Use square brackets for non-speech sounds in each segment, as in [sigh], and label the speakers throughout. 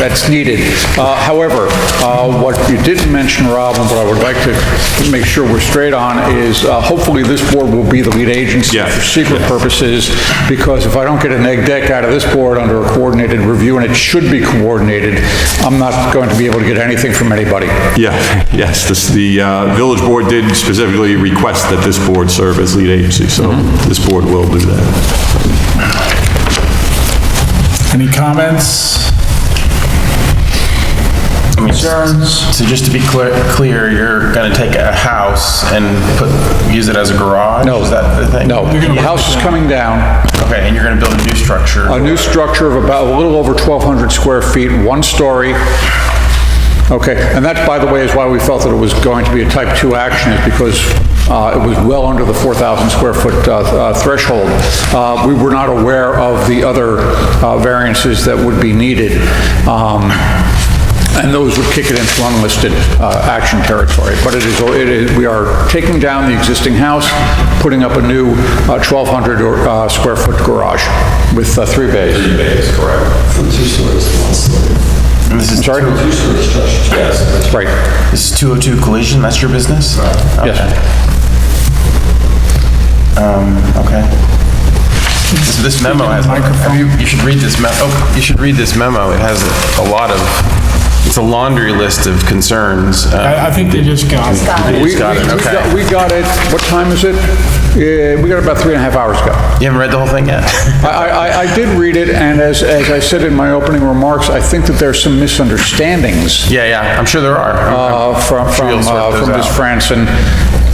Speaker 1: that's needed. Uh, However, uh, what you didn't mention, Rob, and what I would like to make sure we're straight on is uh, hopefully this board will be the lead agency
Speaker 2: Yeah.
Speaker 1: for secret purposes, because if I don't get an egg deck out of this board under a coordinated review, and it should be coordinated, I'm not going to be able to get anything from anybody.
Speaker 2: Yeah, [laughs] yes, this, the uh, village board did specifically request that this board serve as lead agency, so
Speaker 3: Mm-hmm.
Speaker 2: this board will do that.
Speaker 3: Any comments? Concerns?
Speaker 4: So just to be clear, clear, you're gonna take a house and put, use it as a garage?
Speaker 1: No.
Speaker 4: Is that the thing?
Speaker 1: No, the house is coming down.
Speaker 4: Okay, and you're gonna build a new structure?
Speaker 1: A new structure of about a little over 1,200 square feet, one story. Okay, and that, by the way, is why we felt that it was going to be a type 2 action, is because uh, it was well under the 4,000 square foot uh, uh, threshold. Uh, We were not aware of the other uh, variances that would be needed, um, and those would kick it into unlisted uh, action territory. But it is, it is, we are taking down the existing house, putting up a new uh, 1,200 or, uh, square foot garage with uh, three bays.
Speaker 5: From two stories to one story.
Speaker 4: And This is,
Speaker 1: Sorry?
Speaker 5: Two story structure. Yes.
Speaker 1: Right.
Speaker 4: this is 202 collision, that's your business?
Speaker 1: Yes.
Speaker 4: Um, okay. This- This memo has, have you you should read this memo, oh, you should read this memo. It has a lot of, it's a laundry list of concerns. Uh,
Speaker 3: I, I think they just got it.
Speaker 1: We
Speaker 4: We
Speaker 1: we- we
Speaker 4: got it, okay.
Speaker 1: got we got it, what time is it? Uh, We got it about three and a half hours ago.
Speaker 4: You haven't read the whole thing yet? [laughs]
Speaker 1: I- I I- I did read it, and as as I said in my opening remarks, I think that there's some misunderstandings
Speaker 4: Yeah, yeah, I'm sure there are.
Speaker 1: uh, from
Speaker 4: Sure
Speaker 1: from
Speaker 4: you'll sort
Speaker 1: uh,
Speaker 4: those
Speaker 1: from Ms.
Speaker 4: out.
Speaker 1: France, and,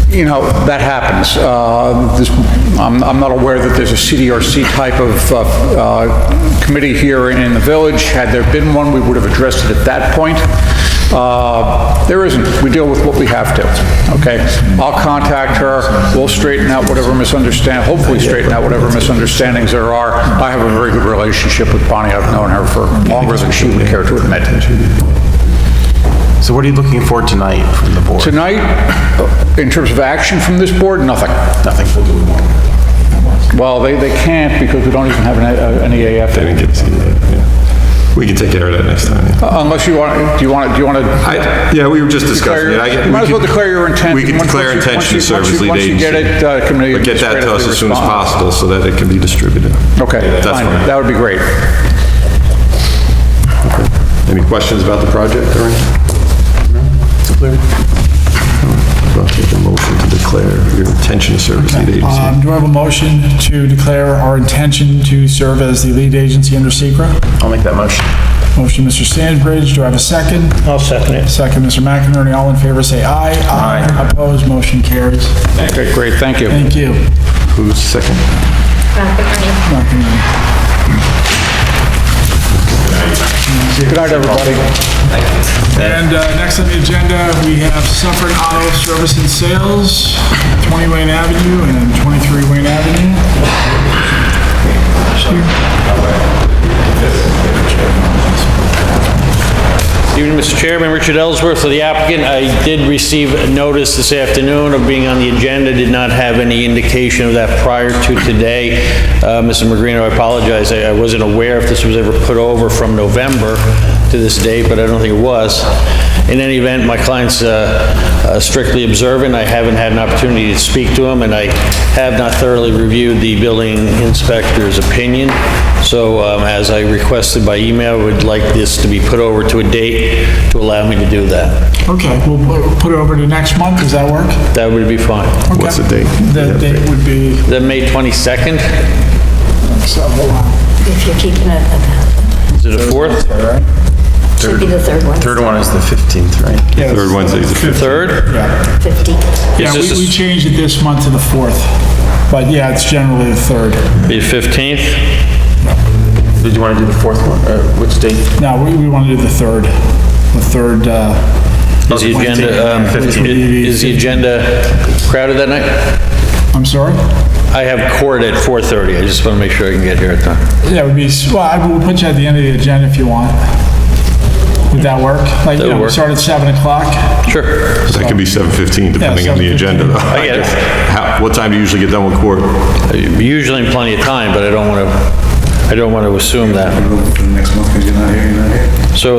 Speaker 1: you know, that happens. Uh, this- I'm I'm not aware that there's a CDRC type of uh, uh, committee here in in the village. Had there been one, we would have addressed it at that point. Uh, There isn't. We deal with what we have to, okay? I'll contact her, we'll straighten out whatever misunderstand, hopefully straighten out whatever misunderstandings there are. I have a very good relationship with Bonnie, I've known her for longer than she would care to admit.
Speaker 4: So what are you looking for tonight from the board?
Speaker 1: Tonight, in terms of action from this board, nothing.
Speaker 4: Nothing. We'll do more.
Speaker 1: Well, they, they can't because we don't even have an E an EAF.
Speaker 2: They didn't get to see that, yeah. We can take care of that next time. yeah.
Speaker 1: Unless you want, do you want, do you want to?
Speaker 2: I, yeah, we were just discussing it. I get-
Speaker 1: You might as well
Speaker 2: we can-
Speaker 1: declare your intent.
Speaker 2: We can
Speaker 1: Once-
Speaker 2: declare
Speaker 1: once you-
Speaker 2: intention to
Speaker 1: once you-
Speaker 2: serve
Speaker 1: once
Speaker 2: as
Speaker 1: you-
Speaker 2: lead
Speaker 1: once
Speaker 2: agency.
Speaker 1: you get it, uh, committee
Speaker 2: But get that to us as soon as
Speaker 1: administratively respond.
Speaker 2: possible so that it can be distributed.
Speaker 1: Okay,
Speaker 2: That's
Speaker 1: fine,
Speaker 2: fine.
Speaker 1: that would be great.
Speaker 2: Any questions about the project or anything? I'll take a motion to declare your intention to serve as lead agency.
Speaker 3: Um, do I have a motion to declare our intention to serve as the lead agency under Secra?
Speaker 4: I'll make that motion.
Speaker 3: Motion, Mr. Sandbridge, do I have a second?
Speaker 6: I'll second it.
Speaker 3: Second, Mr. McInerney, all in favor, say aye. Aye. Opposed, motion carries.
Speaker 1: Okay, great, thank you.
Speaker 3: Thank you.
Speaker 2: Who's second?
Speaker 3: McInerney.
Speaker 1: Good night, everybody.
Speaker 3: And uh, next on the agenda, we have Suffolk Auto Service and Sales, 20 Wayne Avenue and 23 Wayne Avenue.
Speaker 6: Evening, Mr. Chairman, Richard Ellsworth for the applicant. I did receive a notice this afternoon of being on the agenda, did not have any indication of that prior to today. Uh, Mr. Magrino, I apologize, I I wasn't aware if this was ever put over from November to this date, but I don't think it was. In any event, my client's uh, uh, strictly observant, I haven't had an opportunity to speak to him, and I have not thoroughly reviewed the building inspector's opinion. So um, as I requested by email, would like this to be put over to a date to allow me to do that.
Speaker 3: Okay, we'll pu- put it over to next month, does that work?
Speaker 6: That would be fine.
Speaker 3: Okay.
Speaker 2: What's the date?
Speaker 3: The date would be, oh
Speaker 6: The May 22nd,
Speaker 3: so, hold on.
Speaker 7: If you're keeping it at that,
Speaker 6: is it the 4th?
Speaker 7: should be the third one.
Speaker 4: Third one is the 15th, right?
Speaker 3: Yeah,
Speaker 2: Third Wednesday is the 15th.
Speaker 6: 3rd?
Speaker 3: Yeah,
Speaker 7: 15th.
Speaker 3: Yeah,
Speaker 6: Is
Speaker 3: we
Speaker 6: this
Speaker 3: we changed it this month to the 4th, but yeah, it's generally the 3rd.
Speaker 6: the 15th?
Speaker 4: Did you want to do the fourth one? Uh, Which date?
Speaker 3: No, we, we want to do the 3rd, the 3rd, uh,
Speaker 6: Is the
Speaker 4: Wednesday,
Speaker 6: agenda, um,
Speaker 3: Fifteenth.
Speaker 6: is the agenda crowded that night?
Speaker 3: I'm sorry?
Speaker 6: I have court at 4:30, I just want to make sure I can get here at time.
Speaker 3: Yeah, it would be, s- well, I- we'll put you at the end of the agenda if you want. Would that work? Like, you
Speaker 6: That would
Speaker 3: know, we
Speaker 6: work.
Speaker 3: start at 7 o'clock?
Speaker 6: Sure,
Speaker 2: That could be 7:15 depending on the
Speaker 3: 7:15.
Speaker 2: agenda. though.
Speaker 6: I get it.
Speaker 2: How- What time do you usually get done with court?
Speaker 6: usually in plenty of time, but I don't want to, I don't want to assume that.
Speaker 5: Next month, because you're not here, you're not here.
Speaker 6: So